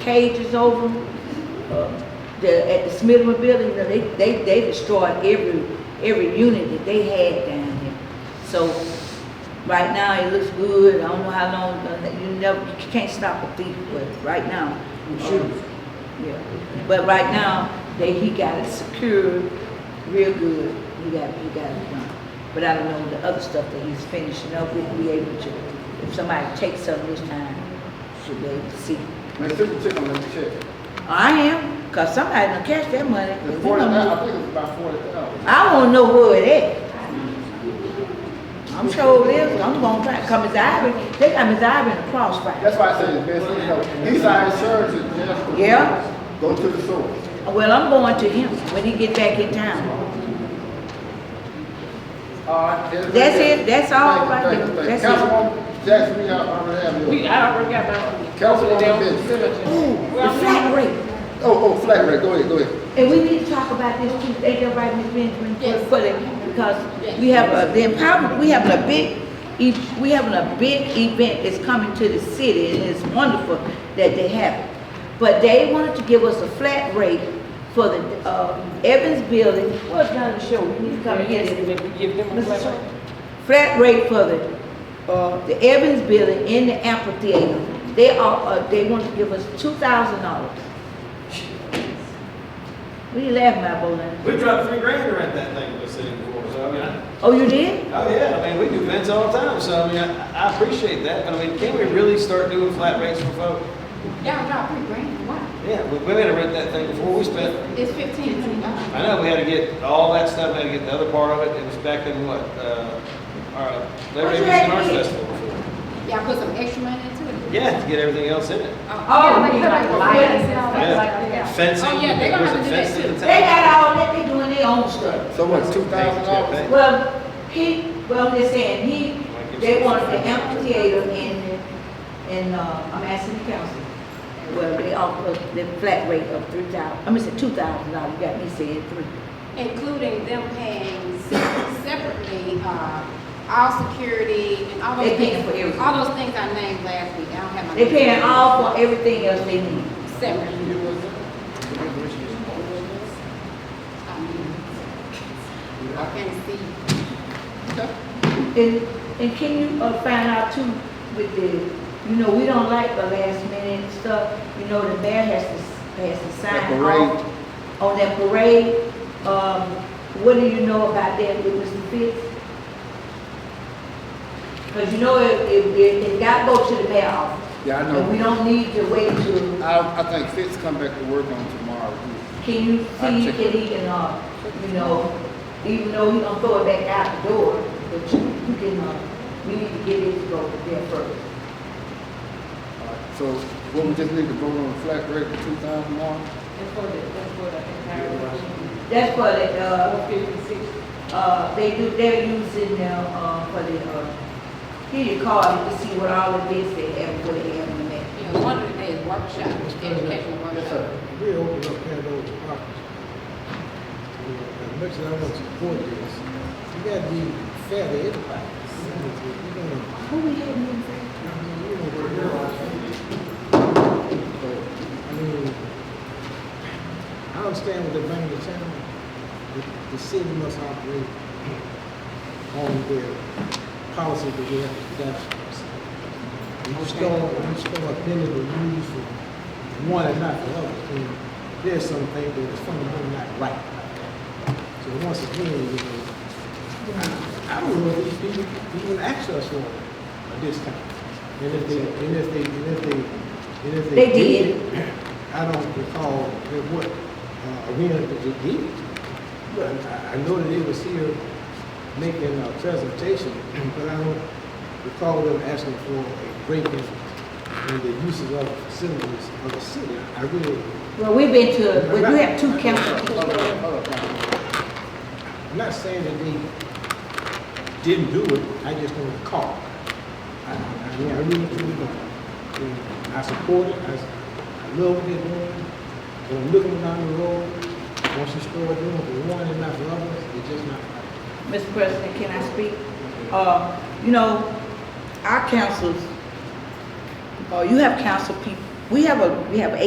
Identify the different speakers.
Speaker 1: cages over them. Uh, The, at the Smithman Building, you know, they, they, they destroyed every, every unit that they had down there. So, right now, it looks good, I don't know how long, uh, you never, you can't stop a thief, but right now. uh, Yeah, but right now, they, he got it secured real good, he got, he got it done. But I don't know the other stuff that he's finishing up, we'll be able to, if somebody takes something this time, should be able to see.
Speaker 2: Man, send the check on that check.
Speaker 1: I am, cause somebody done catch that money.
Speaker 2: It's forty, I think it's about forty thousand.
Speaker 1: I wanna know where it at. I'm sure it is, I'm gonna try, come Miss Ivory, they got Miss Ivory in the crossfire.
Speaker 2: That's why I say it's best, you know, these are insurance is just.
Speaker 1: Yeah.
Speaker 2: Go to the source.
Speaker 1: Well, I'm going to him when he get back in town.
Speaker 2: All right. that's-
Speaker 1: That's it, that's all
Speaker 2: Uh, Thank you,
Speaker 1: right
Speaker 2: thank you,
Speaker 1: there.
Speaker 2: thank
Speaker 1: That's it.
Speaker 2: you. Councilwoman Jackson, we have, already have you.
Speaker 3: We, I already got my.
Speaker 2: Councilwoman Benson.
Speaker 1: Ooh, the flat rate,
Speaker 2: Oh, oh, flat rate, go ahead, go ahead.
Speaker 1: and we need to talk about this too, ain't that right, Miss Benjamin? For- For the, because we have a, the empowerment, we having a big, e- we having a big event that's coming to the city, and it's wonderful that they have it. But they wanted to give us a flat rate for the, uh, Evans Building, what's down the show, we need to come here.
Speaker 3: Give them a
Speaker 1: Mr.
Speaker 3: flat
Speaker 1: Chair.
Speaker 3: rate.
Speaker 1: Flat rate for the, uh, the Evans Building in the amphitheater, they are, uh, they want to give us two thousand dollars. What are you laughing at, Bolin?
Speaker 4: We dropped three grand to rent that thing we're sitting for, so I mean, I,
Speaker 1: Oh, you did?
Speaker 4: oh yeah, I mean, we do events all the time, so I mean, I, I appreciate that, but I mean, can we really start doing flat rates for folks?
Speaker 5: Y'all drop three grand, why?
Speaker 4: Yeah, we, we had to rent that thing before, we spent,
Speaker 5: It's fifteen hundred dollars.
Speaker 4: I know, we had to get all that stuff, we had to get the other part of it, it was back in what, uh, our Labor Day
Speaker 1: What you
Speaker 4: Weekend
Speaker 1: had
Speaker 4: Arts
Speaker 1: to get?
Speaker 4: Festival before.
Speaker 5: Y'all put some extra money into it?
Speaker 4: Yeah, to get everything else in it.
Speaker 5: Oh, like, like, lights and all
Speaker 4: Yeah.
Speaker 5: that, like, yeah.
Speaker 4: Fencing,
Speaker 5: Oh, yeah, they're gonna
Speaker 4: was
Speaker 5: have
Speaker 4: it
Speaker 5: to do that
Speaker 4: fencing
Speaker 5: too.
Speaker 4: and
Speaker 1: They
Speaker 4: tag?
Speaker 1: got all that, they doing their own stuff.
Speaker 2: So what, two thousand dollars?
Speaker 1: Well, he, well, they're saying he, they wanted the amphitheater in, in, uh, I'm asking the council. Well, they offer the flat rate of three thousand, I'm gonna say two thousand dollars, you got me saying three.
Speaker 5: Including them paying se- separately, uh, all security and all those
Speaker 1: They
Speaker 5: things.
Speaker 1: paying for everything.
Speaker 5: All those things I named last week, I don't have my.
Speaker 1: They paying all for everything else they need.
Speaker 5: Separately. I mean, I can't see.
Speaker 1: And, and can you, uh, find out too with the, you know, we don't like the last minute stuff, you know, the mayor has to, has to
Speaker 2: That
Speaker 1: sign
Speaker 2: parade.
Speaker 1: off on that parade. Um, what do you know about that with Mr. Fitz? Cause you know, it, it, it, it got go to the mayor office.
Speaker 2: Yeah, I
Speaker 1: And we
Speaker 2: know.
Speaker 1: don't need to wait to,
Speaker 2: I, I think Fitz come back to work on tomorrow.
Speaker 1: can you
Speaker 2: I'll
Speaker 1: see,
Speaker 2: check.
Speaker 1: can he can, uh, you know, even though he gonna throw it back out the door, but you, you can, uh, we need to get it to go there first.
Speaker 2: All right, Uh, So, what we just need to vote on the flat rate for two thousand dollars?
Speaker 3: That's for the, that's for the entire.
Speaker 1: That's for the, uh,
Speaker 3: Fifty-six.
Speaker 1: uh, they do, they're using now, uh, for the, uh, here you call it to see what all the bids they have, what they have in there.
Speaker 5: You know, one of the days workshop, educational workshop.
Speaker 6: We open up Pandora's box. As much as I want to support this, you gotta be fair to everybody. You know,
Speaker 1: Who we have in
Speaker 6: I mean, you know, we're all- So, I mean, I understand what they're bringing to town. The- The city must operate on their policy that we have established. You just don't, you just don't bend the rules for one and not the other. And there's some things that is fundamentally not right. So once again, you know, I don't know if these people even ask us for a discount. And if they, and if they, and if they, and if they.
Speaker 1: They did.
Speaker 6: I don't recall at what uh, arena that they did. it to. But I, I know that they was here making a presentation, but I don't recall them asking for a break in, in the uses of facilities of the city. I really,
Speaker 1: Well, we've been to, we do have two council.
Speaker 2: Hold up, hold up, hold up.
Speaker 6: I'm not saying that they didn't do it, I just don't recall. I, I mean, I really, truly don't. You know, I support it, I, s- I love what they're doing, but I'm looking down the road, once you start doing it for one and not for others, it's just not right.
Speaker 1: Mr. President, can I speak? Uh, you know, our councils, uh, you have council people, we have a, we have eight.